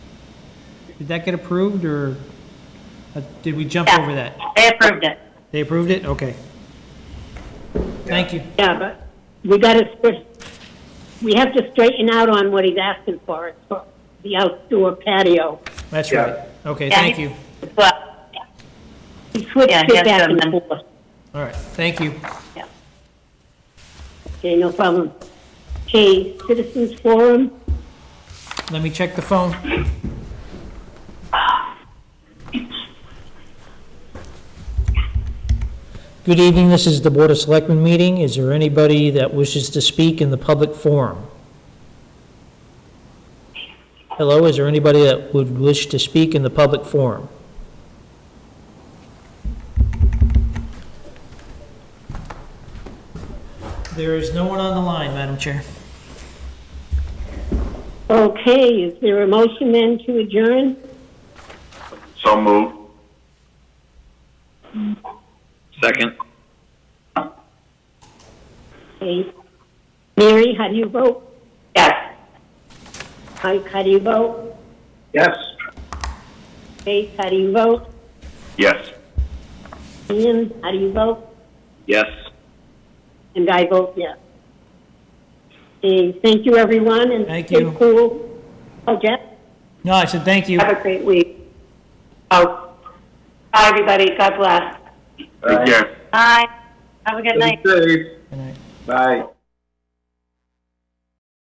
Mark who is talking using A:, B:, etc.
A: Did that get approved, or uh, did we jump
B: Yeah.
A: over that?
B: They approved it.
A: They approved it? Okay. Thank you.
C: Yeah, but we gotta, stra- we have to straighten out on what he's asking for, it's for the outdoor patio.
A: That's
D: Yeah.
A: right. Okay, thank you.
B: Well,
C: He switched
B: Yeah,
C: it
B: he has
C: back
B: to
C: and
B: amend.
C: forth.
A: All right, thank you.
B: yeah.
C: Okay, no problem. Okay, citizens forum,
A: Let me check the phone. Good evening, this is the Board of Selectmen meeting. Is there anybody that wishes to speak in the public forum? Hello, is there anybody that would wish to speak in the public forum? There is no one on the line, Madam Chair.
C: okay, is there a motion then to adjourn?
D: So moved. Second.
C: Okay. Mary, how do you vote?
B: Yes.
C: Mike, how do you vote?
D: Yes.
C: Faith, how do you vote?
D: Yes.
C: Ian, how do you vote?
D: Yes.
C: And I vote yes. Okay, thank you, everyone, and
A: Thank
C: stay
A: you.
C: cool. Oh, Jeff?
A: No, I said thank you.
B: Have a great week. Oh, bye, everybody. God bless.
D: Take care.
B: Bye. Have a good night.
D: Stay safe.
A: Good night.
D: Bye.